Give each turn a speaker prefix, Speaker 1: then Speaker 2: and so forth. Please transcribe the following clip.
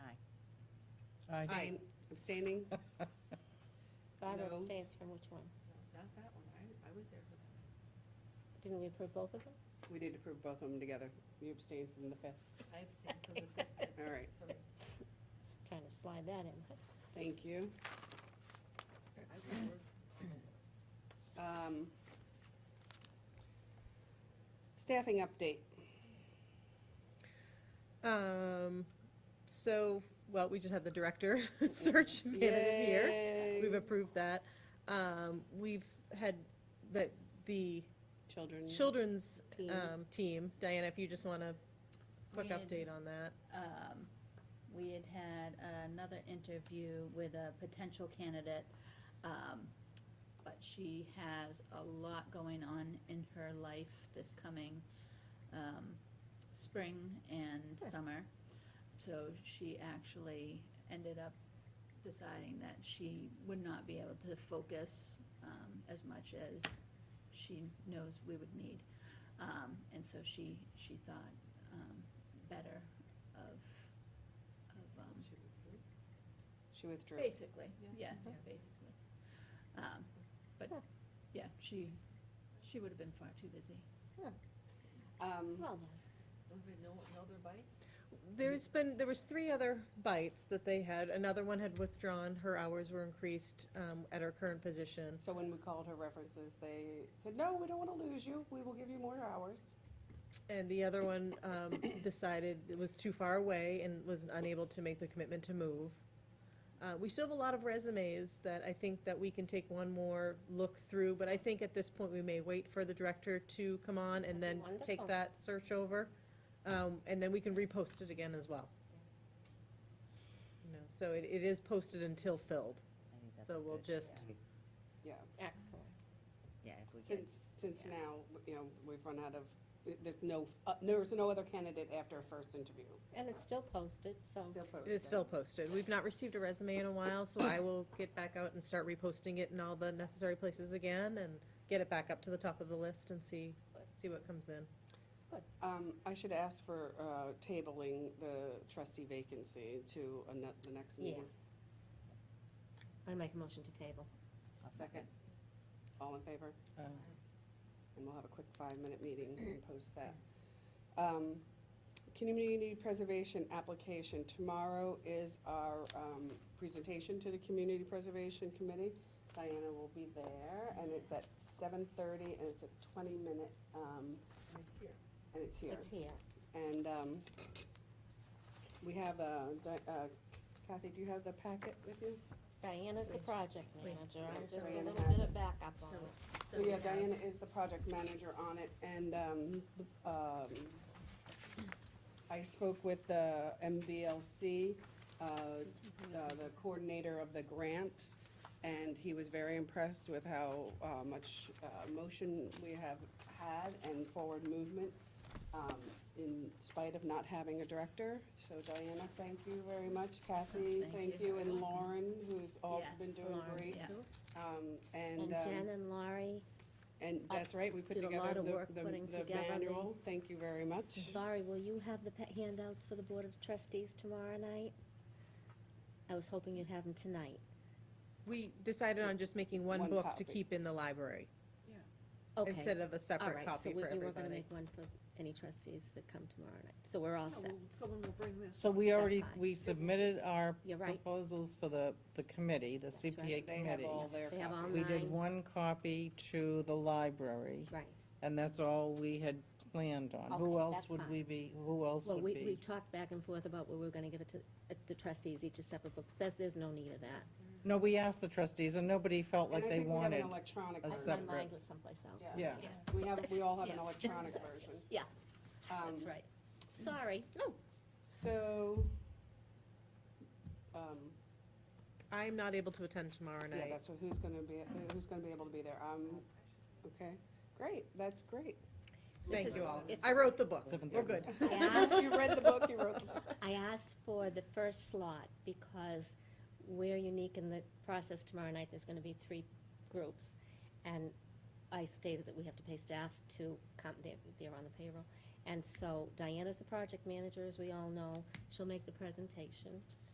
Speaker 1: Aye.
Speaker 2: Abstaining?
Speaker 3: Barbara
Speaker 2: No.
Speaker 3: abstains from which one?
Speaker 2: Not that one, I, I was there for that.
Speaker 3: Didn't we approve both of them?
Speaker 2: We did approve both of them together. You abstained from the fifth.
Speaker 1: I abstained from the fifth.
Speaker 2: All right,
Speaker 1: Sorry.
Speaker 3: Trying to slide that in.
Speaker 2: thank you.
Speaker 1: I was worse.
Speaker 2: Um, Staffing update.
Speaker 4: Um, so, well, we just had the director search candidate here.
Speaker 2: Yay.
Speaker 4: We've approved that. Um, we've had the, the
Speaker 2: Children.
Speaker 4: children's,
Speaker 3: Team.
Speaker 4: um, team. Diana, if you just want a quick
Speaker 5: We had-
Speaker 4: update on that.
Speaker 5: um, we had had another interview with a potential candidate, um, but she has a lot going on in her life this coming um, spring and summer. So she actually ended up deciding that she would not be able to focus um, as much as she knows we would need. Um, And so she, she thought um, better of, of, um,
Speaker 2: She withdrew.
Speaker 5: basically, yes,
Speaker 2: Mm-hmm.
Speaker 1: Yeah.
Speaker 5: basically. Um, But, yeah, she, she would have been far too busy.
Speaker 2: Um,
Speaker 3: Well done.
Speaker 1: Don't we know, know their bites?
Speaker 4: There's been, there was three other bites that they had. Another one had withdrawn. Her hours were increased, um, at her current position.
Speaker 2: So when we called her references, they said, no, we don't want to lose you. We will give you more hours.
Speaker 4: And the other one um, decided it was too far away and was unable to make the commitment to move. Uh, We still have a lot of resumes that I think that we can take one more look through, but I think at this point, we may wait for the director to come on and then
Speaker 3: That'd be
Speaker 4: take
Speaker 3: wonderful.
Speaker 4: that search over. um, And then we can repost it again as well. You know, So it it is posted until filled,
Speaker 6: I think that's
Speaker 4: so
Speaker 6: a
Speaker 4: we'll
Speaker 6: good-
Speaker 4: just,
Speaker 2: Yeah,
Speaker 3: Excellent.
Speaker 6: Yeah, if we get,
Speaker 2: since, since
Speaker 6: Yeah.
Speaker 2: now, you know, we've run out of, there's no, uh, there's no other candidate after a first interview.
Speaker 3: And it's still posted, so
Speaker 2: Still
Speaker 4: it is
Speaker 2: posted.
Speaker 4: still posted. We've not received a resume in a while, so I will get back out and start reposting it in all the necessary places again and get it back up to the top of the list and see, see what comes in.
Speaker 2: Um, I should ask for, uh, tabling the trustee vacancy to a ne- the next
Speaker 3: yes.
Speaker 2: meeting.
Speaker 3: I make a motion to table.
Speaker 6: I'll
Speaker 2: Second. All in favor?
Speaker 6: Aye.
Speaker 2: And we'll have a quick five-minute meeting and post that. Um, Community preservation application, tomorrow is our um, presentation to the Community Preservation Committee. Diana will be there, and it's at seven-thirty, and it's a twenty-minute, um,
Speaker 1: And It's here.
Speaker 2: and it's here.
Speaker 3: It's here.
Speaker 2: And um, we have, uh, Di- uh, Kathy, do you have the packet with you?
Speaker 3: Diana's the project manager. I'm just a
Speaker 2: Diana
Speaker 3: little
Speaker 2: has
Speaker 3: bit of backup on it.
Speaker 2: So yeah, Diana is the project manager on it, and, um, the- um, I spoke with the MBLC, uh, uh, the coordinator of the grant, and he was very impressed with how, uh, much, uh, motion we have had and forward movement, um, in spite of not having a director. So Diana, thank you very much, Kathy,
Speaker 5: Thank
Speaker 2: thank
Speaker 5: you.
Speaker 2: you, and Lauren, who's all been
Speaker 5: Yes,
Speaker 2: doing
Speaker 3: Lauren,
Speaker 2: great.
Speaker 5: yeah.
Speaker 2: Um,
Speaker 3: And uh,
Speaker 2: and, um,
Speaker 3: Jen and Laurie,
Speaker 2: and that's right, we put
Speaker 3: did a lot
Speaker 2: together
Speaker 3: of work
Speaker 2: the,
Speaker 3: putting
Speaker 2: the, the
Speaker 3: together the-
Speaker 2: manual, thank you very much.
Speaker 3: Laurie, will you have the pa- handouts for the Board of Trustees tomorrow night? I was hoping you'd have them tonight.
Speaker 4: We decided on just making one
Speaker 2: One
Speaker 4: book
Speaker 2: copy.
Speaker 4: to keep in the library
Speaker 3: Okay.
Speaker 4: instead of a
Speaker 3: All
Speaker 4: separate
Speaker 3: right, so
Speaker 4: copy
Speaker 3: we
Speaker 4: for
Speaker 3: you were gonna
Speaker 4: everybody.
Speaker 3: make one for any trustees that come tomorrow night. So we're all
Speaker 4: Oh.
Speaker 3: set.
Speaker 1: Someone will bring this.
Speaker 6: So we already,
Speaker 3: fine.
Speaker 6: we submitted our
Speaker 3: You're right.
Speaker 6: proposals for the, the committee, the
Speaker 3: That's right.
Speaker 6: CPA
Speaker 2: They have
Speaker 6: committee.
Speaker 2: all their
Speaker 3: They have all
Speaker 2: copies.
Speaker 6: We did
Speaker 3: Mine.
Speaker 6: one copy to the library,
Speaker 3: Right.
Speaker 6: and that's all we had planned on. Who
Speaker 3: Okay,
Speaker 6: else
Speaker 3: that's
Speaker 6: would
Speaker 3: fine.
Speaker 6: we be, who else
Speaker 3: Well,
Speaker 6: would
Speaker 3: we, we
Speaker 6: be?
Speaker 3: talked back and forth about where we were gonna give it to uh, the trustees, each a separate book. There's, there's no need of that.
Speaker 6: No, we asked the trustees, and nobody felt like
Speaker 2: And I
Speaker 6: they
Speaker 2: think we have an
Speaker 6: wanted.
Speaker 2: electronic
Speaker 6: a
Speaker 3: I-
Speaker 2: version.
Speaker 6: separate-
Speaker 3: My mind was someplace else.
Speaker 2: Yeah.
Speaker 6: Yeah,
Speaker 5: Yes.
Speaker 2: We have, we all have an
Speaker 5: Yeah.
Speaker 2: electronic version.
Speaker 3: Yeah.
Speaker 2: Um,
Speaker 3: That's right. Sorry. No.
Speaker 2: So, um,
Speaker 4: I'm not able to attend tomorrow
Speaker 2: yeah,
Speaker 4: night.
Speaker 2: that's what, who's gonna be, who's gonna be able to be there, um, okay, great, that's great.
Speaker 3: This
Speaker 4: Thank
Speaker 3: is-
Speaker 4: you all.
Speaker 3: it's-
Speaker 4: I wrote the book. We're
Speaker 6: 7:30.
Speaker 4: good.
Speaker 3: I asked
Speaker 2: You read the book, you wrote the book.
Speaker 3: I asked for the first slot because we're unique in the process tomorrow night, there's gonna be three groups. And I stated that we have to pay staff to come, they're, they're on the payroll. And so Diana's the project manager, as we all know, she'll make the presentation.